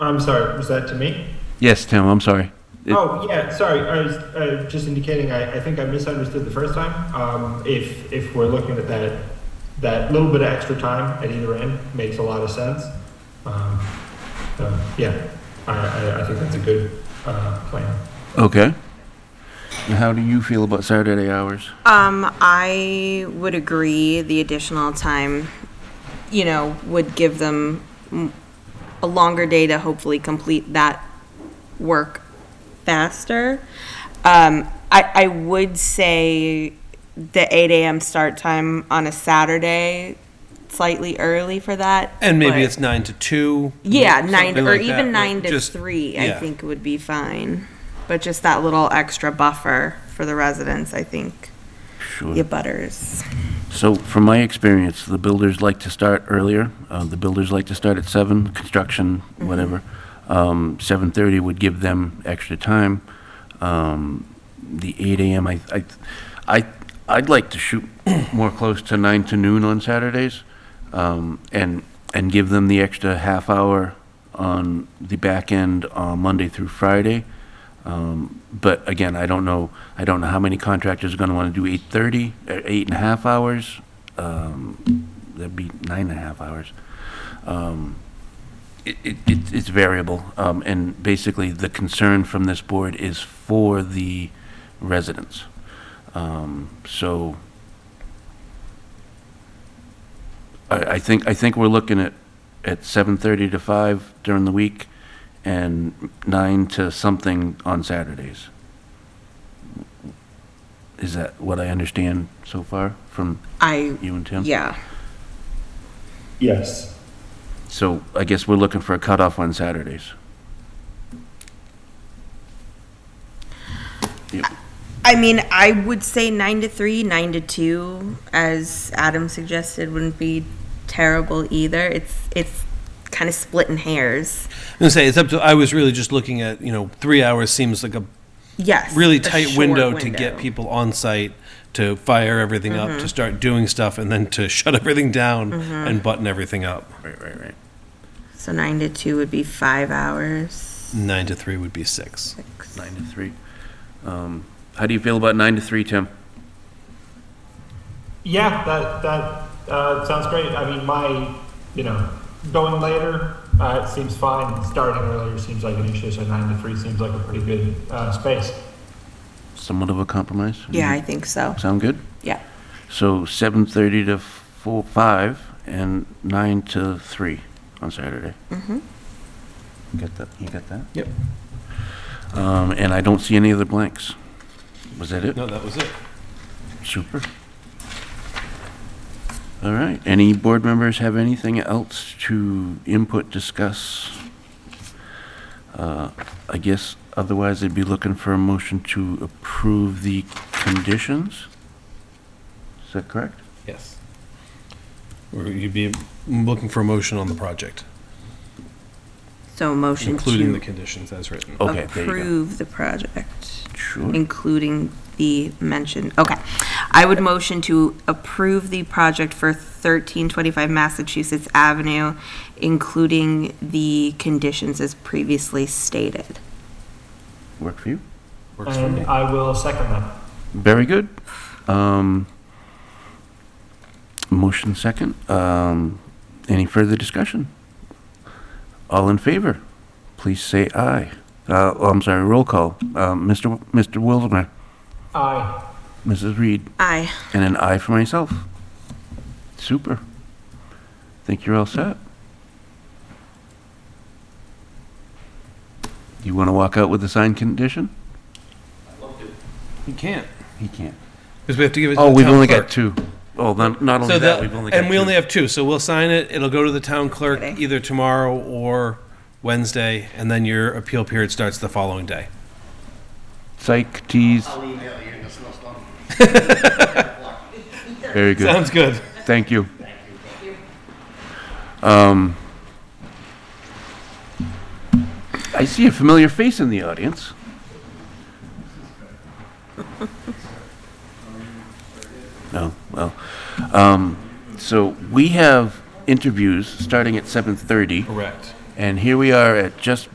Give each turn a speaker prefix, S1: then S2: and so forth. S1: I'm sorry, was that to me?
S2: Yes, Tim, I'm sorry. It-
S1: Oh, yeah, sorry, I was uh, just indicating, I, I think I misunderstood the first time. Um, If, if we're looking at that, that little bit of extra time at either end makes a lot of sense. Um, so, Yeah, I, I, I think that's a good uh, plan.
S2: Okay. And how do you feel about Saturday hours?
S3: Um, I would agree the additional time, you know, would give them mm, a longer day to hopefully complete that work faster. Um, I, I would say the eight AM start time on a Saturday, slightly early for that.
S4: And maybe
S3: but-
S4: it's nine to two.
S3: Yeah,
S4: something
S3: nine, or
S4: like that,
S3: even
S4: but
S3: nine to
S4: just-
S3: three, I
S4: yeah.
S3: think would be fine. But just that little extra buffer for the residents, I think, the
S2: Sure.
S3: butters.
S2: So from my experience, the builders like to start earlier. Uh, The builders like to start at seven, construction, whatever. Um, 7:30 would give them extra time. Um, The 8 AM, I, I, I, I'd like to shoot more close to nine to noon on Saturdays um, and, and give them the extra half hour on the back end on Monday through Friday. Um, But again, I don't know, I don't know how many contractors are going to want to do 8:30, uh, eight and a half hours. Um, That'd be nine and a half hours. Um, It, it, it's- it's variable, Um, and basically, the concern from this board is for the residents. Um, So I, I think, I think we're looking at, at 7:30 to 5 during the week, and nine to something on Saturdays. Is that what I understand so far from
S3: I,
S2: you and Tim?
S3: yeah,
S1: Yes.
S2: So I guess we're looking for a cutoff on Saturdays.
S3: I mean, I would say nine to three, nine to two, as Adam suggested, wouldn't be terrible either. It's, it's kind of splitting hairs.
S4: I'm gonna say it's up to. I was really just looking at you know three hours seems like a
S3: Yes.
S4: really
S3: a
S4: tight
S3: short
S4: window to get
S3: window. Mm-hmm.
S4: people on site to fire everything up to start doing stuff and then to shut everything down and button everything up.
S2: Right, right, right.
S3: So nine to two would be five hours.
S4: Nine to three would be six.
S3: Six.
S2: Nine to three. Um, How do you feel about nine to three, Tim?
S1: Yeah, that, that uh, sounds great. I mean, my, you know, going later uh, seems fine. Starting earlier seems like an issue, so 9 to 3 seems like a pretty good uh, space.
S2: Somewhat of a compromise?
S3: Yeah, I think so.
S2: Sound good?
S3: Yeah.
S2: So 7:30 to 4, 5, and 9 to 3 on Saturday. Mm-hmm. Got that, you got that?
S4: Yep.
S2: Um, And I don't see any other blanks. Was that it?
S4: No, that was it.
S2: Super. All right, any board members have anything else to input, discuss? Uh, I guess otherwise they'd be looking for a motion to approve the conditions? Is that correct?
S4: Yes. Or you'd be looking for a motion on the project,
S3: So motion
S4: including the
S3: to
S4: conditions as written.
S2: Okay, there you
S3: approve the project,
S2: go. Sure.
S3: including the mentioned, okay. I would motion to approve the project for thirteen twenty-five Massachusetts Avenue, including the conditions as previously stated.
S2: Work for you?
S4: Works for
S1: And
S4: me.
S1: I will second that.
S2: Very good. Um, Motion second. Um, Any further discussion? All in favor, please say aye. Uh, oh, I'm sorry, roll call. Um, Mr. W- Mr. Wilmer,
S1: Aye.
S2: Mrs. Reed,
S3: Aye.
S2: and an aye for myself. Super. Think you're all set? You want to walk out with the signed condition?
S4: You can't.
S2: He can't.
S4: Because we have to give it to
S2: Oh,
S4: the
S2: we've
S4: town
S2: only
S4: clerk.
S2: got two. Oh, then, not only
S4: So
S2: that,
S4: that,
S2: we've only got two.
S4: and we only have two, so we'll sign it, it'll go to the town clerk
S3: Friday.
S4: either tomorrow or Wednesday, and then your appeal period starts the following day.
S2: Psych tease. Very good.
S4: Sounds good.
S2: Thank you. Um, I see a familiar face in the audience. No, Oh, well, um, so we have interviews starting at 7:30
S4: Correct.
S2: And here we are at just